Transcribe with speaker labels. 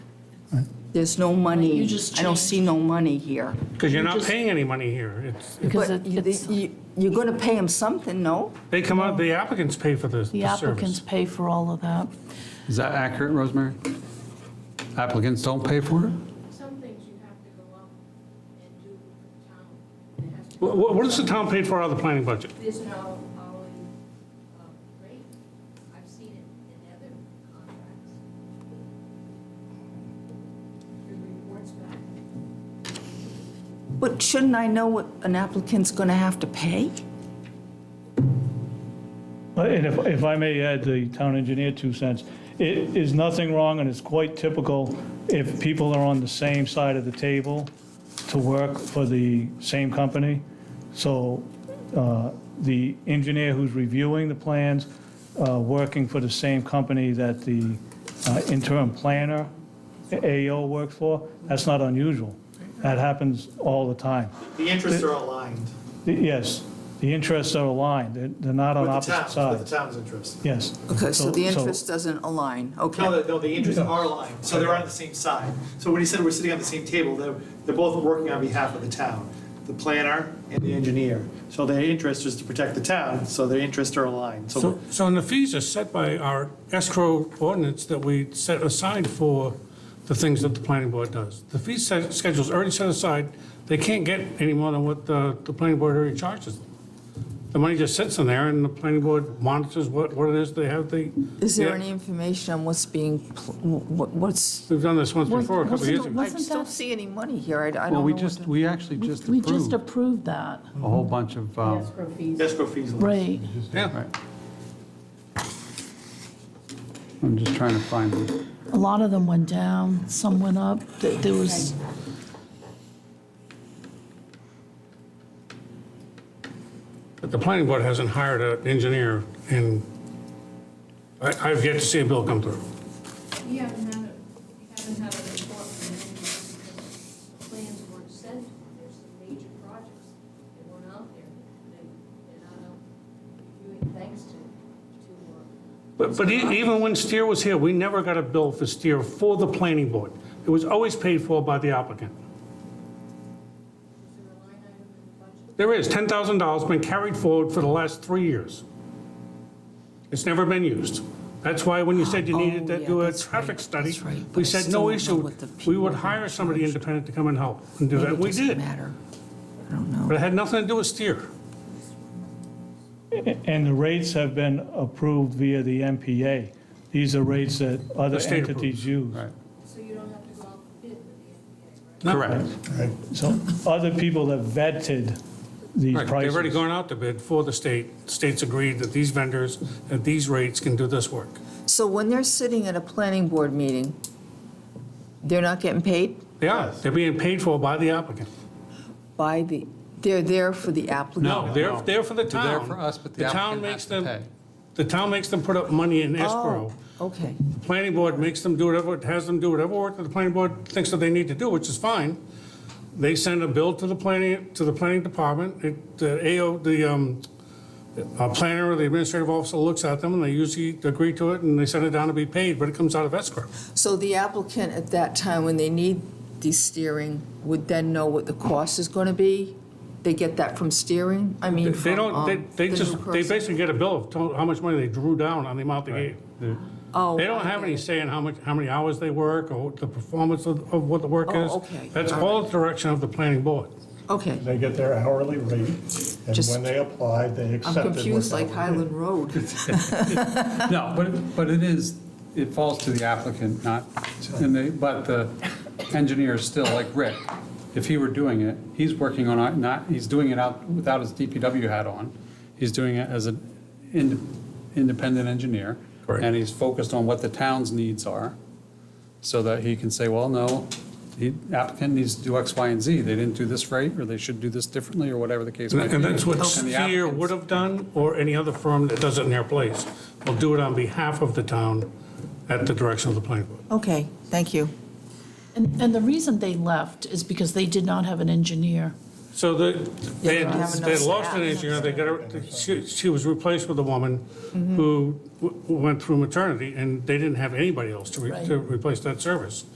Speaker 1: There's no money.
Speaker 2: You just
Speaker 1: I don't
Speaker 2: changed.
Speaker 1: see no money here.
Speaker 3: Because you're not
Speaker 2: just-
Speaker 3: paying any money here. It's,
Speaker 4: Because
Speaker 1: But
Speaker 4: it-
Speaker 1: you-
Speaker 4: it's,
Speaker 1: you- you're going to pay them something, no?
Speaker 3: they come out, the applicants pay for the
Speaker 4: the
Speaker 3: the
Speaker 4: applicants
Speaker 3: service.
Speaker 4: pay for all of that.
Speaker 5: Is that accurate, Rosemary? Applicants don't pay for it?
Speaker 6: Some things you have to go up and do with the town. and it has to-
Speaker 3: Wha- wha- What does the town pay for out of the planning budget?
Speaker 6: There's no hourly um, rate. I've seen it in other contracts. Your report's back.
Speaker 1: But shouldn't I know what an applicant's going to have to pay?
Speaker 7: And if, if I may add the town engineer two cents, it is nothing wrong and it's quite typical if people are on the same side of the table to work for the same company. So uh, the engineer who's reviewing the plans, uh, working for the same company that the uh, interim planner, AO, works for, that's not unusual. That happens all the time.
Speaker 8: The interests are aligned
Speaker 7: The- Yes, the interests are aligned. They're- They're not on
Speaker 8: with
Speaker 7: opposite
Speaker 8: the town's,
Speaker 7: sides.
Speaker 8: with the town's interests.
Speaker 7: Yes.
Speaker 1: Okay, so the interest doesn't align, okay.
Speaker 8: No, the- no, the interests are aligned, so they're on the same side. So when he said we're sitting on the same table, they're, they're both working on behalf of the town, the planner and the engineer. So their interest is to protect the town, so their interests are aligned. So
Speaker 3: So, so and the fees are set by our escrow ordinance that we set aside for the things that the planning board does. The fee se- schedule's already set aside. They can't get any more than what the, the planning board already charges them. The money just sits in there and the planning board monitors what, what it is they have the.
Speaker 1: Is there
Speaker 3: Yeah.
Speaker 1: any information on what's being, pl- wh- what's,
Speaker 3: We've done this once
Speaker 4: Was-
Speaker 3: before, a couple of
Speaker 4: wasn't
Speaker 3: years
Speaker 4: the-
Speaker 3: ago.
Speaker 1: I
Speaker 4: Wasn't
Speaker 1: just don't
Speaker 4: that-
Speaker 1: see any money here, I I don't know.
Speaker 5: Well, we
Speaker 1: what
Speaker 5: just,
Speaker 1: to-
Speaker 5: we actually just
Speaker 4: We just
Speaker 5: approved a
Speaker 4: approved that,
Speaker 5: whole bunch of, um,
Speaker 2: escrow fees.
Speaker 8: escrow fees.
Speaker 4: right.
Speaker 3: Yeah.
Speaker 5: I'm just trying to find them.
Speaker 4: A lot of them went down, some went up. Th- There was,
Speaker 3: But the planning board hasn't hired an engineer and I, I've yet to see a bill come through.
Speaker 6: We haven't had, a- we haven't had a report from them because the plans weren't sent. There's some major projects that weren't out there. They- They're not out reviewing thanks to, to uh,
Speaker 3: But, but e- even when Steer was here, we never got a bill for Steer for the planning board. It was always paid for by the applicant. There is, $10,000 been carried forward for the last three years. It's never been used. That's why when you said you needed to
Speaker 1: Oh, yeah,
Speaker 3: do a
Speaker 1: that's
Speaker 3: traffic study,
Speaker 1: that's right. But I
Speaker 3: we said
Speaker 1: still don't
Speaker 3: no
Speaker 1: know
Speaker 3: issue.
Speaker 1: what the
Speaker 3: We would
Speaker 1: people
Speaker 3: hire somebody
Speaker 1: charged.
Speaker 3: independent to come and help and do that.
Speaker 1: Maybe it
Speaker 3: We
Speaker 1: doesn't
Speaker 3: did,
Speaker 1: matter. I don't know.
Speaker 3: but it had nothing to do with Steer.
Speaker 7: And the rates have been approved via the MPA. These are rates that other
Speaker 3: The state approves,
Speaker 7: entities use.
Speaker 5: Right.
Speaker 6: So you don't have to go out for bid with the NBA, right?
Speaker 5: Correct.
Speaker 7: So other people have vetted these
Speaker 3: Right,
Speaker 7: prices.
Speaker 3: They've already gone out to bid for the state. States agreed that these vendors, at these rates, can do this work.
Speaker 1: So when they're sitting at a planning board meeting, they're not getting paid
Speaker 3: They are. They're being paid for by the applicant.
Speaker 1: by the, they're there for the applicant?
Speaker 3: No, they're
Speaker 5: no.
Speaker 3: there for the
Speaker 5: They're
Speaker 3: town.
Speaker 5: there for us, but the
Speaker 3: town
Speaker 5: applicant
Speaker 3: makes
Speaker 5: has to
Speaker 3: them-
Speaker 5: pay.
Speaker 3: The town makes them put up money in escrow.
Speaker 1: Oh, okay.
Speaker 3: Planning board makes them do whatever, has them do whatever work that the planning board thinks that they need to do, which is fine. They send a bill to the planning, to the planning department. It, the AO, the um, uh, planner or the administrative officer looks at them, and they usually agree to it, and they send it down to be paid, but it comes out of escrow.
Speaker 1: So the applicant at that time, when they need the steering, would then know what the cost is going to be? They get that from steering? I mean,
Speaker 3: They
Speaker 1: from
Speaker 3: don't,
Speaker 1: um,
Speaker 3: they,
Speaker 1: the
Speaker 3: they
Speaker 1: new
Speaker 3: just, they
Speaker 1: person?
Speaker 3: basically get a bill of to- how much money they drew down on the amount they gave.
Speaker 1: Oh,
Speaker 3: They don't
Speaker 1: I
Speaker 3: have
Speaker 1: get
Speaker 3: any
Speaker 1: it.
Speaker 3: say in how much, how many hours they work or what the performance of, of what the work
Speaker 1: Oh,
Speaker 3: is.
Speaker 1: okay.
Speaker 3: That's
Speaker 1: All
Speaker 3: all the direction of the planning board.
Speaker 1: Okay,
Speaker 9: They get their hourly rate, and
Speaker 1: Just-
Speaker 9: when they apply, they
Speaker 1: I'm
Speaker 9: accept it.
Speaker 1: confused,
Speaker 9: without-
Speaker 1: like Highland Road.
Speaker 5: No, but, it- but it is, it falls to the applicant, not, and they, but the engineer is still, like Rick, if he were doing it, he's working on, it, not, he's doing it out without his DPW hat on. He's doing it as an ind- independent engineer.
Speaker 3: Correct.
Speaker 5: And he's focused on what the town's needs are, so that he can say, well, no, the applicant needs to do X, Y, and Z. They didn't do this right, or they should do this differently, or whatever the case might be.
Speaker 3: And that's what
Speaker 5: And the
Speaker 3: Steer
Speaker 5: applicant's-
Speaker 3: would have done, or any other firm that does it in their place, will do it on behalf of the town at the direction of the planning board.
Speaker 1: Okay, thank you.
Speaker 4: and, and the reason they left is because they did not have an engineer.
Speaker 3: So the, they,
Speaker 1: Yeah, they don't have
Speaker 3: they
Speaker 1: enough
Speaker 3: lost an
Speaker 1: staff.
Speaker 3: engineer, they got, a- she, she was replaced with a woman who w- went through maternity, and they didn't have anybody else to, re-
Speaker 4: Right.
Speaker 3: to replace that service.